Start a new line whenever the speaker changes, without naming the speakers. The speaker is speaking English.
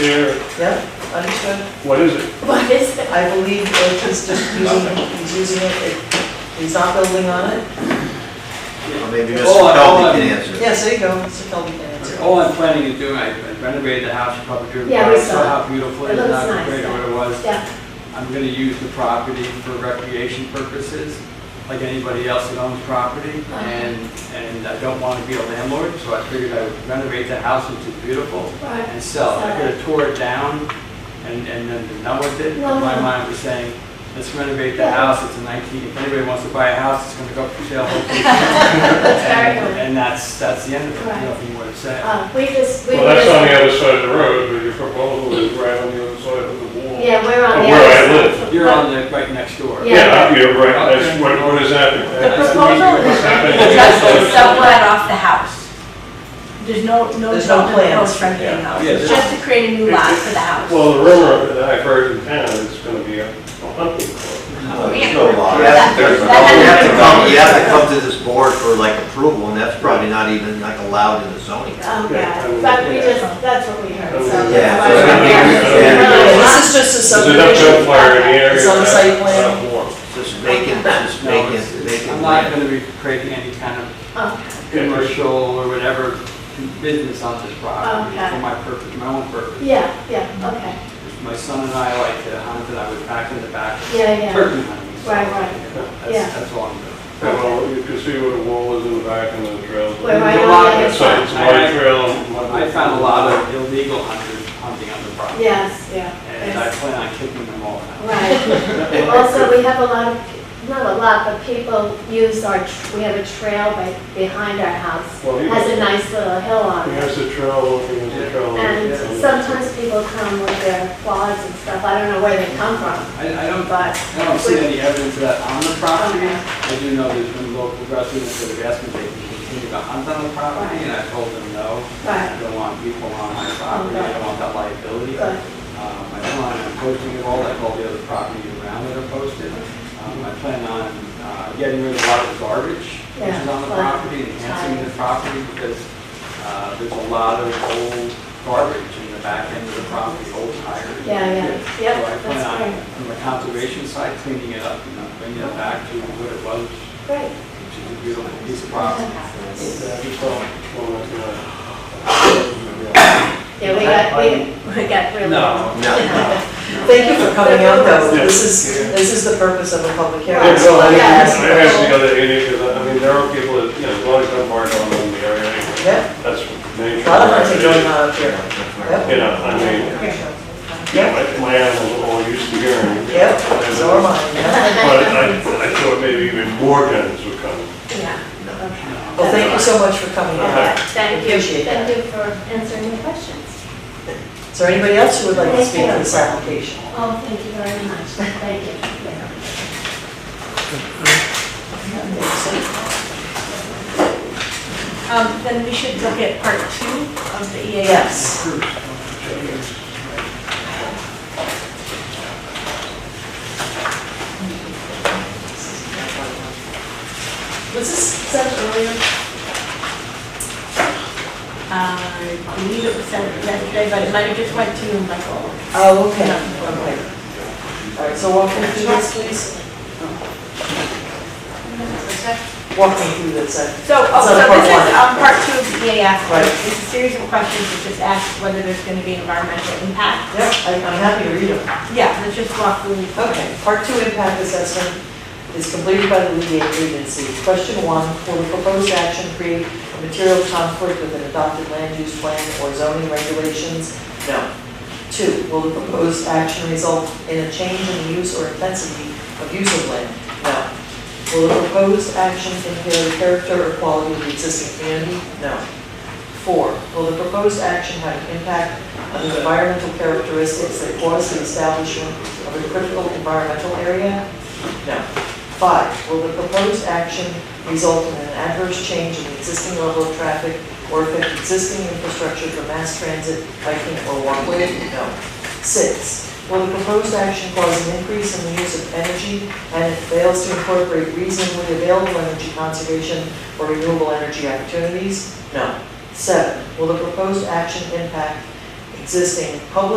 There,
Yeah, understood.
what is it?
What is it?
I believe that he's just using, he's using it, it- he's not building on it.
Well, Maybe Mr.
Oh, I-
Kelly
oh,
can
I-
answer.
Yeah, so you go, Mr. Kelby can answer.
All I'm planning to do, I I renovated the house, you probably drew.
Yeah, we
I
saw it.
How beautiful it
It
is,
looks
how
nice,
great
yeah.
it was.
Yeah,
I'm gonna use the property for recreation purposes, like anybody else that owns property.
Uh-huh.
And, and I don't wanna be a landlord, so I figured I would renovate the house, which is beautiful,
right.
and sell it. I
Sell it.
could've tore it down and, and then been done with it. But My
No.
mind was saying, let's renovate the
uh-huh. Yeah.
house, it's a nineteen, if anybody wants to buy a house, it's gonna go up for sale. hopefully.
That's very
And-
good.
And that's, that's the end of it,
Right.
nothing more to say.
Uh, We just, we
Well, that's on the
just,
other side of the road, but your proposal is right on the other side of the wall.
yeah, we're
Of
on the
where I
other
live.
side.
You're on the, right next door.
Yeah.
Yeah, you're right, that's, what, what is happening?
The proposal is
What's happening?
It's actually somewhat off the house. There's no, no.
There's no
development
plans.
proposed for anything
Yeah.
else.
Yeah,
It's
there's-
Just to create a new lot for the house.
Well, the rumor that I've heard in town is it's gonna be a a hunting club.
No, there's no law. You Oh,
That-
have to there's no-
that-
you have to come, you have to come to this board for like approval, and that's probably not even like allowed in the zoning.
Oh, God, but we just, that's what we heard, so. that's
Yeah.
why we're here.
Yeah.
This is just a
There's enough
subdivision.
gunfire in the area.
It's on the site plan.
that's not warm.
It's just vacant, it's just
No, it's-
vacant,
it's-
vacant
I'm not
land.
gonna be creating any kind of
Oh,
commercial or whatever business on this property
Okay.
for my purpose, my own purpose.
Oh, Yeah, yeah, okay,
My son and I like to hunt, and I would pack in the back,
yeah, yeah.
turkey hunting. so,
Right, right.
you know,
Yeah.
That's, that's all I'm doing.
And all- you can see where the wall is in the back and the trails.
We're right
There's a
on
lot
the other
of-
It's like,
side.
it's my trail. my-
I found a lot of illegal hunters hunting on the property,
Yes, yeah.
and I
yes.
plan on kicking them all out.
Right. Also, we have a lot of, not a lot, but people use our, tr- we have a trail by- behind our house.
Well, he
Has a
was-
nice little hill on
he
it.
has the trail, looking at the trail.
And sometimes people come with their quads and stuff, I don't know where they come from,
I, I don't,
but
I don't see any evidence of that on the property. I do know there's been local residents that have asked me if they can continue to hunt on the property, and I told them no. I
Right,
don't want people on my property, I don't want that liability. Um,
good.
I plan on posting it all, like all the other properties around that are posted. Um, I plan on uh, getting rid of a lot of garbage which is on the
Yeah.
property, enhancing the property, because uh, there's a lot of old garbage in the back end of the property, old tires.
Yeah, yeah.
So
Yep,
I plan
that's
on,
great.
from the conservation side, cleaning it up, you know, bringing it back to what it was,
great.
which is a beautiful piece of property.
Yeah, I just saw one that's not-
Yeah, we got, we, we got really.
No.
No.
Thank you for coming out though. This is, this is the purpose of a public hearing.
Yeah, no, I mean,
Yeah.
I have the other issue, because I mean, there are people that, you know, as long as I'm hard on them, the area, anyway,
Yeah,
that's
a
nature.
lot of hunting going on up here.
You know, I mean, yeah, my- my animals are all used to hearing.
Yep, so am I, yeah.
But I, I thought maybe even more guns would come.
Yeah, okay.
Well, thank you so much for coming out.
Uh-huh.
Thank you,
Appreciate that.
thank you for answering the questions.
Is there anybody else who would like to speak on this application?
Oh, thank you very much, thank you. Yeah.
Um, then we should look at part two of the E EAF.
Yes. Was this sent earlier?
Uh, I believe it was sent yesterday, but it might have just went to Michael.
Oh, okay, okay. All right, so walk me through this, please. Walk me through this, uh,
So, oh,
So
so
part
this is,
one.
um, part two of the EAF,
Right.
it's a series of questions that just ask whether there's gonna be environmental impact.
yeah, I- I'm happy to read them.
Yeah, let's just walk through. these.
Okay, part two impact assessment is completed by the lead agency. Question one, will the proposed action create a material conflict with an adopted land use plan or zoning regulations? No. Two, will the proposed action result in a change in the use or intensity of use of land? No. Will the proposed action impair the character or quality of the existing community? No. Four, will the proposed action have an impact on the environmental characteristics that cause the establishment of a critical environmental area? No. Five, will the proposed action result in an adverse change in the existing level of traffic or affect existing infrastructure for mass transit, biking, or walkway? No. Six, will the proposed action cause an increase in the use of energy and it fails to incorporate reasonably available energy conservation or renewable energy opportunities? No. Seven, will the proposed action impact a existing public